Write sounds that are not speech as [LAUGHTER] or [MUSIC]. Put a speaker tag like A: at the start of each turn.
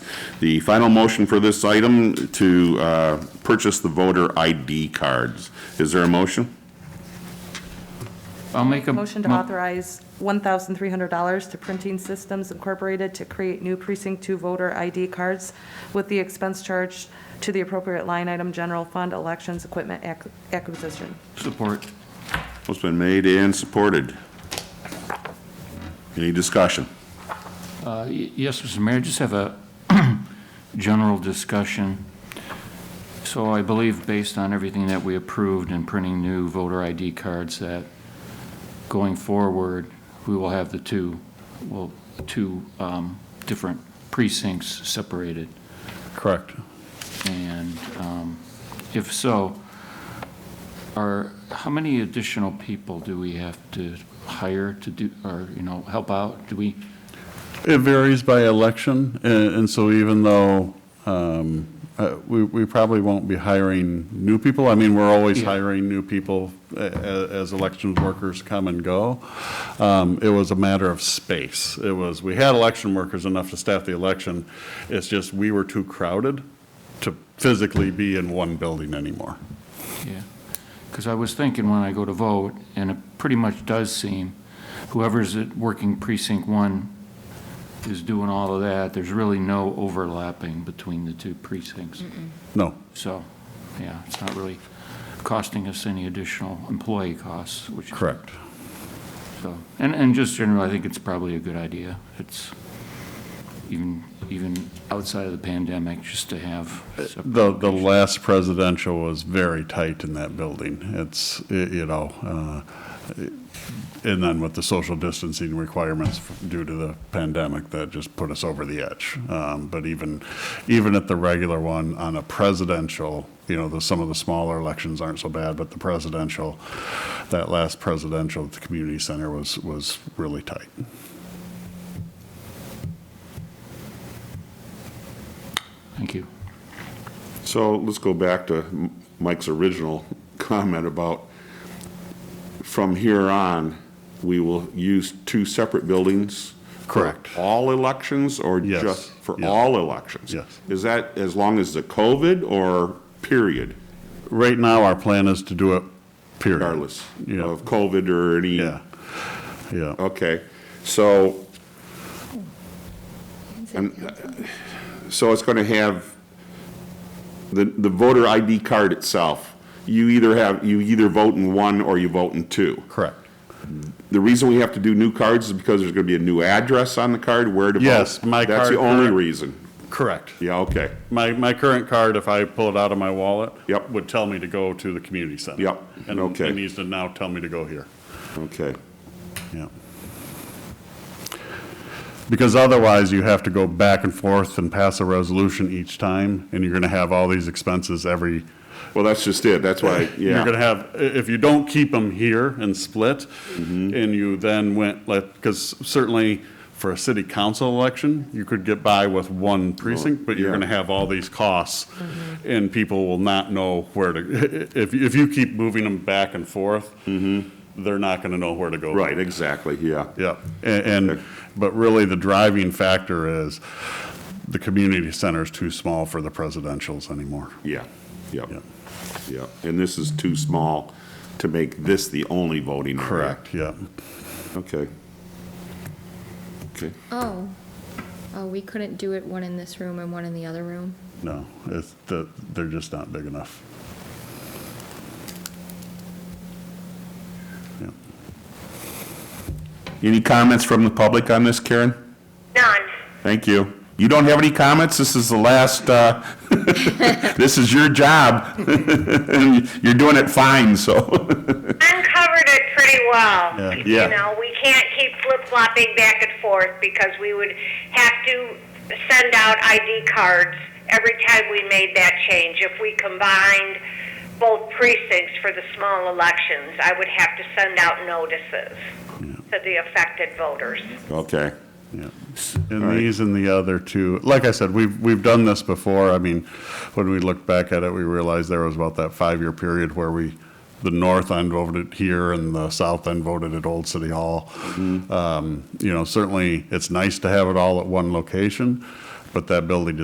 A: The final motion for this item to uh, purchase the voter ID cards. Is there a motion?
B: I'll make a.
C: Motion to
B: mo-
C: authorize $1,300 to Printing Systems Incorporated to create new Precinct 2 voter ID cards with the expense charged to the appropriate line item, General Fund Elections Equipment Ac- Acquisition.
B: Support.
A: It's been made and supported. Any discussion?
B: Uh, y- Yes, Mr. Mayor, just have a [CLEARS THROAT] general discussion. So I believe, based on everything that we approved in printing new voter ID cards, that going forward, we will have the two, well, two um, different precincts separated.
D: Correct.
B: And um, if so, are, how many additional people do we have to hire to do, or, you know, help out? Do we,
D: It varies by election, and, and so even though, um, uh, we, we probably won't be hiring new people, I mean, we're always
B: Yeah.
D: hiring new people a- a- as election workers come and go. Um, it was a matter of space. It was, we had election workers enough to staff the election, it's just we were too crowded to physically be in one building anymore.
B: Yeah, because I was thinking when I go to vote, and it pretty much does seem, whoever's at working precinct one is doing all of that, there's really no overlapping between the two precincts.
D: No,
B: So, yeah, it's not really costing us any additional employee costs, which.
D: correct.
B: So, and, and just generally, I think it's probably a good idea. It's even, even outside of the pandemic, just to have.
D: Uh, The, the last presidential was very tight in that building. It's, y- you know, uh, and then with the social distancing requirements f- due to the pandemic, that just put us over the edge. Um, But even, even at the regular one, on a presidential, you know, the, some of the smaller elections aren't so bad, but the presidential, that last presidential at the community center was, was really tight.
B: Thank you.
A: So let's go back to Mike's original [LAUGHS] comment about from here on, we will use two separate buildings?
D: Correct.
A: For all elections or
D: Yes,
A: just for
D: yes.
A: all elections?
D: Yes.
A: Is that as long as the COVID or period,
D: Right now, our plan is to do it period.
A: regardless
D: Yeah.
A: of Oh. COVID or any?
D: Yeah, yeah.
A: Okay, so, and, uh, so it's going to have, the, the voter ID card itself, you either have, you either vote in one or you vote in two.
D: Correct.
A: The reason we have to do new cards is because there's going to be a new address on the card, where to vote.
D: Yes, my
A: That's the
D: card
A: only
D: current-
A: reason.
D: Correct.
A: Yeah, okay,
D: My, my current card, if I pull it out of my wallet.
A: Yep.
D: Would tell me to go to the community center.
A: Yep,
D: And
A: okay.
D: it needs to now tell me to go here.
A: okay.
D: Yeah. Because otherwise, you have to go back and forth and pass a resolution each time, and you're gonna have all these expenses every,
A: Well, that's just it, that's why,
D: [LAUGHS] you're gonna
A: yeah,
D: have, i- if you don't keep them here and split,
A: Mm-hmm.
D: and you then went, like, because certainly for a city council election, you could get by with one precinct, but you're
A: yeah.
D: gonna have all these costs, and people will not know where to, if, if you keep moving them back and forth, they're not gonna know where to go.
A: Mm-hmm. right, exactly, yeah.
D: Yeah, and, and, but really, the driving factor is, the community center is too small for the presidentials anymore.
A: Yeah, yep,
D: Yep.
A: yep. And this is too small to make this the only voting area.
D: Correct, yeah.
A: Okay. Okay,
E: Oh, oh, we couldn't do it one in this room and one in the other room?
D: No, it's, the- they're just not big enough. Yeah.
A: any comments from the public on this, Karen?
F: None.
A: Thank you. You don't have any comments? This is the last, uh, [LAUGHS] this is your job. [LAUGHS] You're doing it fine, so. [LAUGHS]
F: Uncovered it pretty well.
D: Yeah.
A: Yeah.
F: You know, we can't keep flip-flopping back and forth because we would have to send out ID cards every time we made that change. If we combined both precincts for the small elections, I would have to send out notices to the affected voters.
A: Okay,
D: Yeah, and these and the other two, like I said, we've, we've done this before. I mean, when we looked back at it, we realized there was about that five-year period where we, the north end voted it here and the south end voted at Old City Hall. Um, You know, certainly, it's nice to have it all at one location, but that building